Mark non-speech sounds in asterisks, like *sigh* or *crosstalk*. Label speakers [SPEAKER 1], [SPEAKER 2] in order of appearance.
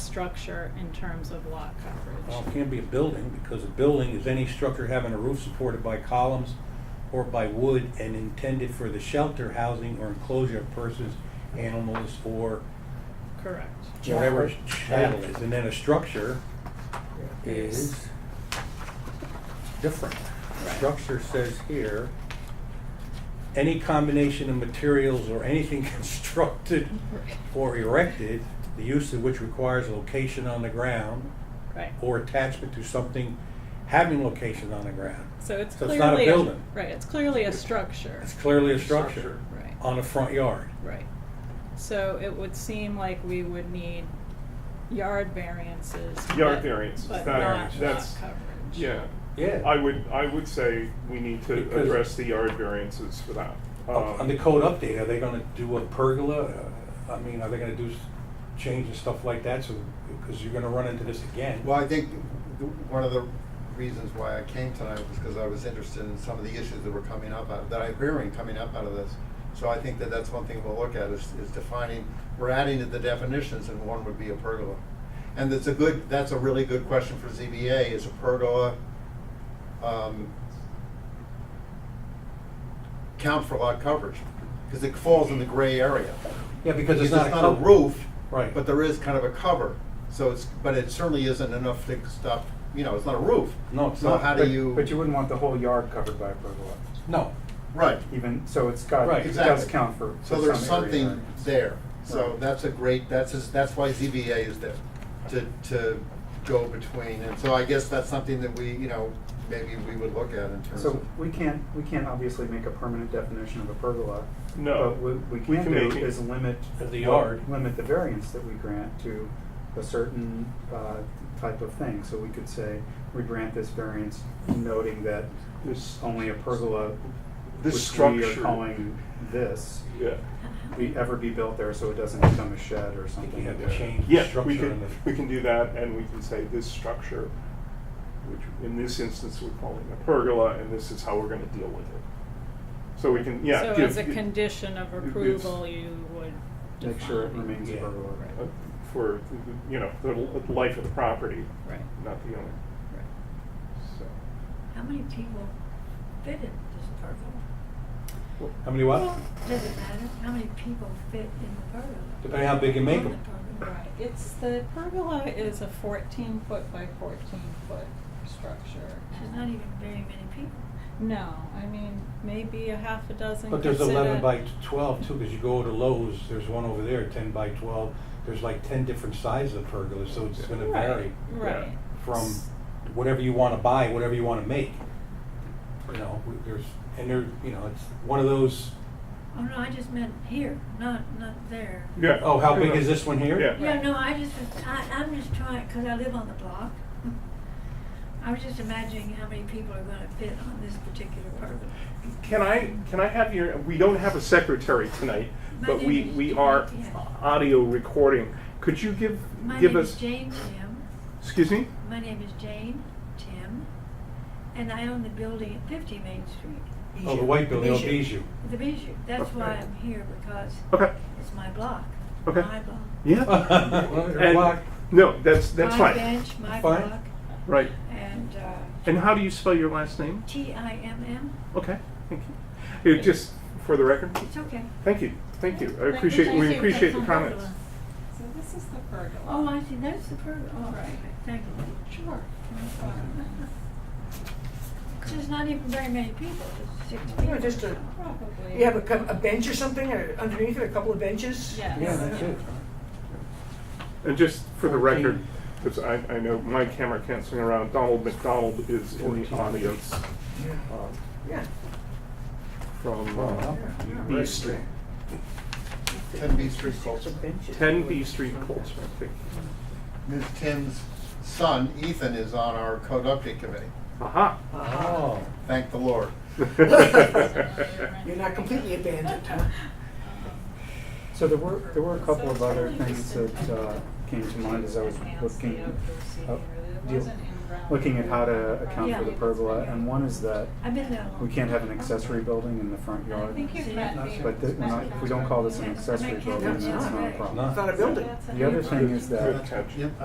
[SPEAKER 1] structure in terms of lot
[SPEAKER 2] Well,
[SPEAKER 1] coverage.
[SPEAKER 2] it can't be a building, because a building is any structure having a roof supported by columns or by wood and intended for the shelter, housing, or enclosure of persons, animals, or
[SPEAKER 1] Correct.
[SPEAKER 2] whatever
[SPEAKER 3] Chapel.
[SPEAKER 2] chattel is. And then a structure is different. Structure says here, any combination of materials or anything *laughs* constructed or erected, the use of which requires location on the ground,
[SPEAKER 1] Right.
[SPEAKER 2] or attachment to something having location on the ground.
[SPEAKER 1] So it's
[SPEAKER 2] So it's not a
[SPEAKER 1] clearly,
[SPEAKER 2] building.
[SPEAKER 1] right, it's clearly a structure.
[SPEAKER 2] It's clearly a structure
[SPEAKER 1] Right.
[SPEAKER 2] on a front yard.
[SPEAKER 1] Right. So it would seem like we would need yard variances.
[SPEAKER 4] Yard
[SPEAKER 1] but-
[SPEAKER 4] variances,
[SPEAKER 1] But
[SPEAKER 4] that-
[SPEAKER 1] not lot
[SPEAKER 4] that's-
[SPEAKER 1] coverage.
[SPEAKER 4] Yeah, I
[SPEAKER 2] Yeah.
[SPEAKER 4] would, I would say we need to
[SPEAKER 2] Because-
[SPEAKER 4] address the yard variances for that.
[SPEAKER 2] On Oh, the
[SPEAKER 4] Um,
[SPEAKER 2] code update, are they gonna do a pergola? Uh, I mean, are they gonna do s- change and stuff like that? So, because you're gonna run into this again.
[SPEAKER 3] Well, I think th- one of the reasons why I came tonight was because I was interested in some of the issues that were coming up, out- that I'm hearing coming up out of this. So I think that that's one thing we'll look at is, is defining, we're adding to the definitions and one would be a pergola. And that's a good, that's a really good question for ZBA, is a pergola, um, count for lot coverage? Because it falls in the gray area.
[SPEAKER 2] Yeah, because it's
[SPEAKER 3] Because
[SPEAKER 2] not a.
[SPEAKER 3] a
[SPEAKER 2] code.
[SPEAKER 3] roof.
[SPEAKER 2] Right.
[SPEAKER 3] But there is kind of a cover, so it's, but it certainly isn't enough to stop, you know, it's not a roof.
[SPEAKER 2] No, it's
[SPEAKER 3] So
[SPEAKER 2] not,
[SPEAKER 3] how do
[SPEAKER 5] But-
[SPEAKER 3] you?
[SPEAKER 5] But you wouldn't want the whole yard covered by a pergola,
[SPEAKER 2] No,
[SPEAKER 3] Right,
[SPEAKER 5] even, so it's got,
[SPEAKER 2] Right.
[SPEAKER 5] it does
[SPEAKER 3] Exactly.
[SPEAKER 5] count for.
[SPEAKER 3] so
[SPEAKER 5] for
[SPEAKER 3] there's
[SPEAKER 5] some area
[SPEAKER 3] something
[SPEAKER 5] variance.
[SPEAKER 3] there, so
[SPEAKER 5] Right.
[SPEAKER 3] that's a great, that's, just- that's why ZBA is there, to, to go between, and so I guess that's something that we, you know, maybe we would look at in terms
[SPEAKER 5] So
[SPEAKER 3] of.
[SPEAKER 5] we can't, we can't obviously make a permanent definition of a pergola.
[SPEAKER 4] No,
[SPEAKER 5] But what we
[SPEAKER 4] we
[SPEAKER 5] can
[SPEAKER 4] can
[SPEAKER 5] do
[SPEAKER 4] make it-
[SPEAKER 5] is limit.
[SPEAKER 2] Of the
[SPEAKER 5] what-
[SPEAKER 2] yard.
[SPEAKER 5] Limit the variance that we grant to a certain uh, type of thing. So we could say, we grant this variance noting that
[SPEAKER 4] This-
[SPEAKER 5] only a pergola,
[SPEAKER 4] This
[SPEAKER 5] which we are
[SPEAKER 4] structure-
[SPEAKER 5] calling this,
[SPEAKER 4] Yeah,
[SPEAKER 5] be ever be built there, so it doesn't become a shed or
[SPEAKER 2] I think
[SPEAKER 5] something.
[SPEAKER 2] you have to
[SPEAKER 5] like that.
[SPEAKER 2] change the
[SPEAKER 4] yeah, we
[SPEAKER 2] structure in
[SPEAKER 4] can,
[SPEAKER 2] the.
[SPEAKER 4] we can do that, and we can say this structure, which in this instance we're calling a pergola, and this is how we're gonna deal with it. So we can, yeah.
[SPEAKER 1] So
[SPEAKER 4] give-
[SPEAKER 1] as a condition of
[SPEAKER 4] it's-
[SPEAKER 1] approval, you would define.
[SPEAKER 5] Make sure it remains a
[SPEAKER 2] Yeah.
[SPEAKER 5] pergola.
[SPEAKER 1] Right.
[SPEAKER 4] uh, For, you know, the l- life of the property,
[SPEAKER 1] Right,
[SPEAKER 4] not the owner,
[SPEAKER 1] right.
[SPEAKER 4] so.
[SPEAKER 6] How many people fit in this pergola?
[SPEAKER 2] How many what?
[SPEAKER 6] Does it matter? How many people fit in the pergola?
[SPEAKER 2] Depending how big you make
[SPEAKER 6] On the
[SPEAKER 2] 'em.
[SPEAKER 6] pergola.
[SPEAKER 1] Right, it's, the pergola is a fourteen foot by fourteen foot structure.
[SPEAKER 6] There's not even very many people.
[SPEAKER 1] No, I mean, maybe a half a dozen.
[SPEAKER 2] But there's
[SPEAKER 1] could sit
[SPEAKER 2] eleven
[SPEAKER 1] at-
[SPEAKER 2] by twelve too, because you go to Lowe's, there's one over there, ten by twelve. There's like ten different sizes of pergolas, so it's gonna
[SPEAKER 1] Right,
[SPEAKER 2] vary
[SPEAKER 1] Right.
[SPEAKER 2] from whatever you wanna buy, whatever you wanna make. You know, we- there's, and there, you know, it's one of those,
[SPEAKER 6] Oh, no, I just meant here, not, not there.
[SPEAKER 4] Yeah.
[SPEAKER 2] oh, how big is this one here?
[SPEAKER 4] Yeah.
[SPEAKER 6] Yeah, no, I just, was- I, I'm just trying, because I live on the block. *laughs* I was just imagining how many people are gonna fit on this particular pergola.
[SPEAKER 4] Can I, can I have your, we don't have a secretary tonight, but we, we are audio recording. Could you give,
[SPEAKER 6] My
[SPEAKER 4] give
[SPEAKER 6] name is
[SPEAKER 4] us,
[SPEAKER 6] Jane Tim.
[SPEAKER 4] excuse me?
[SPEAKER 6] My name is Jane Tim, and I own the building at 50 Main Street,
[SPEAKER 2] Oh, the white building, oh, Bijou.
[SPEAKER 6] the Bijou. That's why I'm here, because
[SPEAKER 4] Okay,
[SPEAKER 6] it's my block.
[SPEAKER 4] Okay.
[SPEAKER 6] My block.
[SPEAKER 2] *laughs*
[SPEAKER 4] yeah.
[SPEAKER 2] Well, your
[SPEAKER 4] Uh, And-
[SPEAKER 2] block.
[SPEAKER 4] No, that's, that's
[SPEAKER 6] my
[SPEAKER 4] fine.
[SPEAKER 6] bench, my
[SPEAKER 2] Fine.
[SPEAKER 6] block,
[SPEAKER 4] Right.
[SPEAKER 6] and uh,
[SPEAKER 4] And how do you spell your last name?
[SPEAKER 6] T-I-M-M.
[SPEAKER 4] Okay, thank you. It- Just for the record,
[SPEAKER 6] It's okay.
[SPEAKER 4] thank you, thank you. I
[SPEAKER 1] you,
[SPEAKER 4] appreciate,
[SPEAKER 1] thank
[SPEAKER 4] we
[SPEAKER 1] you.
[SPEAKER 4] appreciate the
[SPEAKER 6] That's on
[SPEAKER 4] comments.
[SPEAKER 6] pergola.
[SPEAKER 1] So this is the pergola.
[SPEAKER 6] Oh, I see. That's the pergola. All right. Thank you. Sure. There's not even very many people. There's six people.
[SPEAKER 7] You know, just a,
[SPEAKER 1] Probably.
[SPEAKER 7] you have a, cou- a bench or something or underneath it, a couple of benches?
[SPEAKER 1] Yes. *laughs*
[SPEAKER 2] Yeah, that's it.
[SPEAKER 4] And just for the
[SPEAKER 2] Fourteen.
[SPEAKER 4] record, because I, I know my camera can't swing around, Donald McDonald is in the
[SPEAKER 2] Fourteen.
[SPEAKER 4] audience
[SPEAKER 7] Yeah.
[SPEAKER 4] uh,
[SPEAKER 7] Yeah.
[SPEAKER 4] from
[SPEAKER 2] Well,
[SPEAKER 4] uh,
[SPEAKER 2] huh?
[SPEAKER 7] yeah,
[SPEAKER 4] B
[SPEAKER 7] right.
[SPEAKER 4] Street.
[SPEAKER 3] Ten B Street Colts.
[SPEAKER 7] Benches.
[SPEAKER 4] 10 B Street, Cold Spring. thank you.
[SPEAKER 3] Ms. Tim's son, Ethan, is on our code update committee,
[SPEAKER 4] Aha.
[SPEAKER 7] Ah,
[SPEAKER 2] Oh,
[SPEAKER 3] thank
[SPEAKER 2] *laughs*
[SPEAKER 3] the Lord. *laughs*
[SPEAKER 7] You're not completely
[SPEAKER 1] *laughs*
[SPEAKER 7] abandoned, huh?
[SPEAKER 5] So there were, there were a couple of
[SPEAKER 1] So it's
[SPEAKER 5] other
[SPEAKER 1] really
[SPEAKER 5] things
[SPEAKER 1] just an
[SPEAKER 5] that uh, came to mind as I was
[SPEAKER 1] enhanced
[SPEAKER 5] looking,
[SPEAKER 1] layout for
[SPEAKER 5] uh,
[SPEAKER 1] senior. It
[SPEAKER 5] deal-
[SPEAKER 1] wasn't in round
[SPEAKER 5] looking at how to
[SPEAKER 1] one.
[SPEAKER 5] account for the
[SPEAKER 1] Yeah.
[SPEAKER 5] pergola. And one is that
[SPEAKER 6] I've been there a long
[SPEAKER 5] we can't have an
[SPEAKER 6] time.
[SPEAKER 5] accessory building in the front
[SPEAKER 1] I
[SPEAKER 5] yard.
[SPEAKER 1] think you've met me.
[SPEAKER 5] But that- we're not- if we don't call this an accessory building, that's not a
[SPEAKER 2] No.
[SPEAKER 5] problem.
[SPEAKER 7] It's not a building.
[SPEAKER 1] That's an
[SPEAKER 5] The other
[SPEAKER 1] enhanced
[SPEAKER 5] thing is that
[SPEAKER 4] Good catch.
[SPEAKER 3] Yep.